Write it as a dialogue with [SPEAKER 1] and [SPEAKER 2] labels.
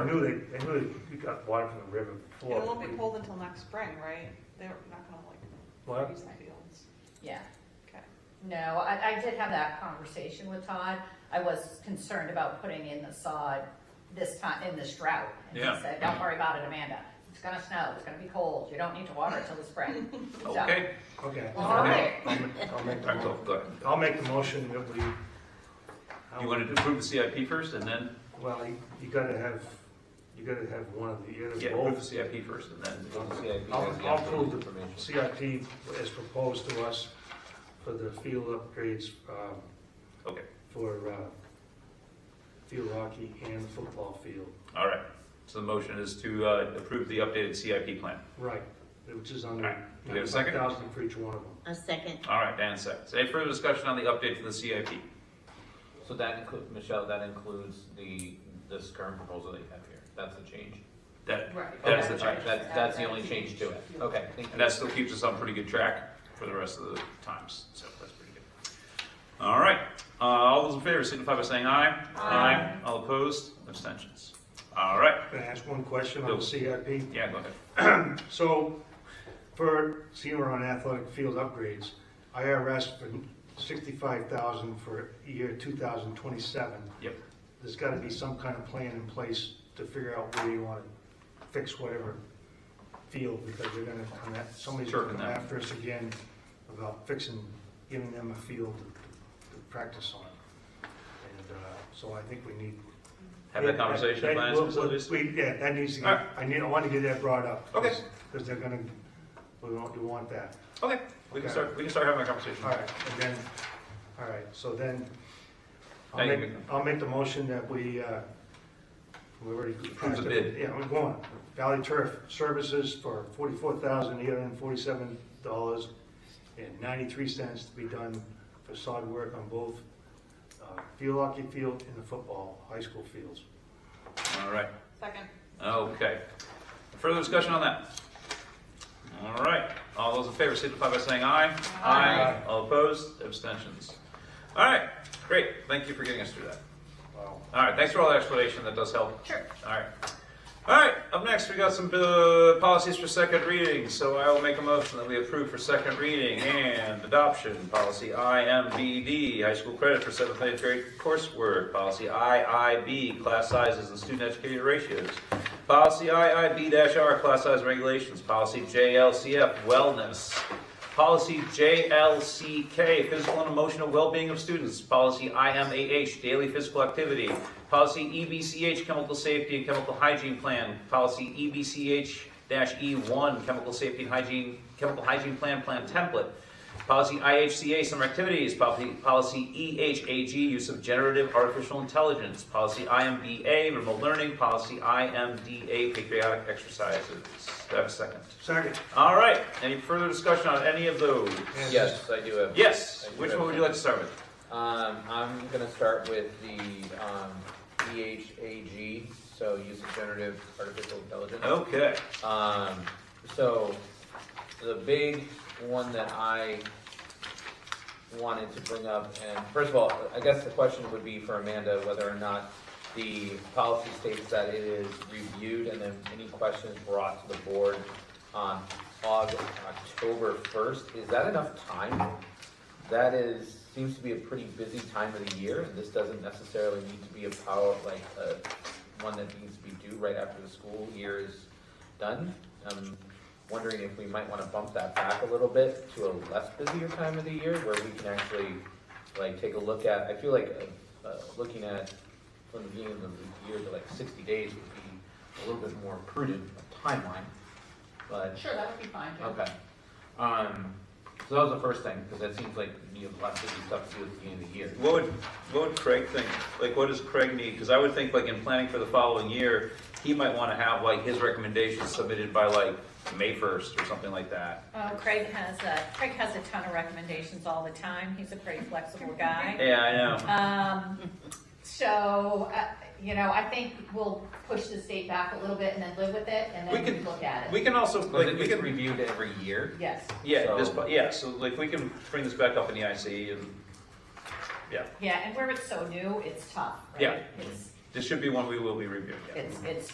[SPEAKER 1] knew they, they knew they got water from the river
[SPEAKER 2] It
[SPEAKER 1] before.
[SPEAKER 2] won't be pulled until next spring, right? They're not gonna like
[SPEAKER 1] What?
[SPEAKER 2] use the fields.
[SPEAKER 3] Yeah,
[SPEAKER 2] Okay.
[SPEAKER 3] no, I, I did have that conversation with Todd. I was concerned about putting in the sod this time, in this drought. And
[SPEAKER 4] Yeah.
[SPEAKER 3] he said, don't worry about it, Amanda. It's gonna snow, it's gonna be cold, you don't need to water it till the spring. So-
[SPEAKER 4] Okay.
[SPEAKER 1] Okay.
[SPEAKER 3] All right.
[SPEAKER 1] I'll make- I'll make the
[SPEAKER 4] That's all,
[SPEAKER 1] mo-
[SPEAKER 4] good.
[SPEAKER 1] I'll make the motion that we. um,
[SPEAKER 4] You wanted to approve the CIP first and then,
[SPEAKER 1] Well, you- you gotta have, you gotta have one of the, either
[SPEAKER 4] yeah, approve the
[SPEAKER 1] both.
[SPEAKER 4] CIP first and then.
[SPEAKER 5] CIP
[SPEAKER 1] I'll-
[SPEAKER 5] has the
[SPEAKER 1] I'll
[SPEAKER 5] actual
[SPEAKER 1] prove it.
[SPEAKER 5] information.
[SPEAKER 1] CIP is proposed to us for the field upgrades, um,
[SPEAKER 4] Okay,
[SPEAKER 1] for, uh, field hockey and football field.
[SPEAKER 4] all right. So the motion is to uh, approve the updated CIP plan.
[SPEAKER 1] Right, which is
[SPEAKER 4] All
[SPEAKER 1] under
[SPEAKER 4] right. Do we have a
[SPEAKER 1] nine
[SPEAKER 4] second?
[SPEAKER 1] thousand for each one of them.
[SPEAKER 6] A second.
[SPEAKER 4] All right, Dan seconds. Any further discussion on the update to the CIP?
[SPEAKER 5] So that includes, Michelle, that includes the, this current proposal that you have here, that's the change?
[SPEAKER 4] That,
[SPEAKER 3] Right.
[SPEAKER 4] That's the
[SPEAKER 5] Okay,
[SPEAKER 4] change.
[SPEAKER 5] That's, that's the only change to it, okay, thank you.
[SPEAKER 4] And that still keeps us on pretty good track for the rest of the times, so that's pretty good. All right, uh, all those in favor signify by saying aye. Aye. All opposed, abstentions. All right,
[SPEAKER 1] Can I ask one question on the
[SPEAKER 4] Yes.
[SPEAKER 1] CIP?
[SPEAKER 4] yeah, go ahead.
[SPEAKER 1] So, for senior on athletic field upgrades, IRS for sixty-five thousand for year two thousand twenty-seven.
[SPEAKER 4] Yep.
[SPEAKER 1] There's gotta be some kind of plan in place to figure out where you wanna fix whatever field, because they're gonna come at, somebody's
[SPEAKER 4] Sure,
[SPEAKER 1] gonna come
[SPEAKER 4] no.
[SPEAKER 1] after us again about fixing, giving them a field to to practice on. And, uh, so I think we need
[SPEAKER 4] Have that conversation
[SPEAKER 1] that-
[SPEAKER 4] with Finance
[SPEAKER 1] we'll-
[SPEAKER 4] and Facilities?
[SPEAKER 1] we- Yeah, that needs to
[SPEAKER 4] All
[SPEAKER 1] get,
[SPEAKER 4] right.
[SPEAKER 1] I need, I want to get that brought up.
[SPEAKER 4] Okay.
[SPEAKER 1] Because they're gonna, we want, we want that.
[SPEAKER 4] Okay, we can
[SPEAKER 1] Okay.
[SPEAKER 4] start, we can start having a conversation.
[SPEAKER 1] All right, and then, all right, so then, I'll
[SPEAKER 4] Thank
[SPEAKER 1] make,
[SPEAKER 4] you.
[SPEAKER 1] I'll make the motion that we, uh, we already.
[SPEAKER 4] Approve the bid.
[SPEAKER 1] Yeah, we're going. Valley Turf Services for forty-four thousand eight hundred and forty-seven dollars and ninety-three cents to be done for sod work on both, uh, field hockey field and the football, high school fields.
[SPEAKER 4] All right,
[SPEAKER 2] Second.
[SPEAKER 4] okay. Further discussion on that? All right, all those in favor signify by saying aye.
[SPEAKER 1] Aye.
[SPEAKER 4] All opposed, abstentions. All right, great, thank you for getting us through that.
[SPEAKER 1] Wow.
[SPEAKER 4] All right, thanks for all the explanation, that does help.
[SPEAKER 3] Sure.
[SPEAKER 4] All right. All right, up next, we got some uh, policies for second reading, so I will make a motion that we approve for second reading and adoption. Policy IMBD, high school credit for seventh and eighth grade coursework. Policy IIB, class sizes and student educator ratios. Policy IIB-R, class size regulations. Policy JLCF, wellness. Policy JLCK, physical and emotional well-being of students. Policy IMAH, daily physical activity. Policy E EBCH, chemical safety and chemical hygiene plan. Policy E EBCH-E1, E chemical safety and hygiene, chemical hygiene plan, plan template. Policy IHCA, summer activities. Policy, policy E EHAG, use of generative artificial intelligence. Policy IMBA, remote learning. Policy IMDA, patriotic exercises. Do I have a second?
[SPEAKER 1] Second.
[SPEAKER 4] All right, any further discussion on any of those?
[SPEAKER 1] And-
[SPEAKER 5] Yes, I do have.
[SPEAKER 4] Yes,
[SPEAKER 5] Thank you,
[SPEAKER 4] which
[SPEAKER 5] Rev.
[SPEAKER 4] one would you like to start with?
[SPEAKER 5] Um, I'm gonna start with the, um, EHAG, so use of generative artificial intelligence.
[SPEAKER 4] Okay,
[SPEAKER 5] Um, so the big one that I wanted to bring up, and first of all, I guess the question would be for Amanda whether or not the policy states that it is reviewed and then any questions brought to the board on August, October first. Is that enough time? That is, seems to be a pretty busy time of the year, and this doesn't necessarily need to be a power, like, uh, one that needs to be due right after the school year is done. I'm wondering if we might wanna bump that back a little bit to a less busier time of the year where we can actually, like, take a look at, I feel like, uh, uh, looking at from the beginning of the year to like sixty days would be a little bit more prudent timeline, but.
[SPEAKER 3] Sure, that would be fine, too.
[SPEAKER 5] Okay. Um, so that was the first thing, because that seems like you have lots of stuff to do at the beginning of the year.
[SPEAKER 4] what would, what would Craig think? Like, what does Craig need? Because I would think like in planning for the following year, he might want to have like his recommendations submitted by like May first or something like that.
[SPEAKER 3] Uh, Craig has a, Craig has a ton of recommendations all the time. He's a pretty flexible guy.
[SPEAKER 4] Yeah, I know.
[SPEAKER 3] Um, so, uh, you know, I think we'll push this date back a little bit and then live with it and
[SPEAKER 4] We
[SPEAKER 3] then
[SPEAKER 4] can-
[SPEAKER 3] look at it.
[SPEAKER 4] We can also,
[SPEAKER 5] Because
[SPEAKER 4] like,
[SPEAKER 5] it
[SPEAKER 4] we
[SPEAKER 5] gets
[SPEAKER 4] can,
[SPEAKER 5] reviewed every year.
[SPEAKER 3] Yes,
[SPEAKER 4] yeah, this,
[SPEAKER 5] So-
[SPEAKER 4] yeah, so like, we can bring this back up in the IC and, yeah.
[SPEAKER 3] yeah, and where it's so new, it's tough, right?
[SPEAKER 4] Yeah.
[SPEAKER 3] It's,
[SPEAKER 4] This should be one we will be reviewing.
[SPEAKER 3] it's, it's,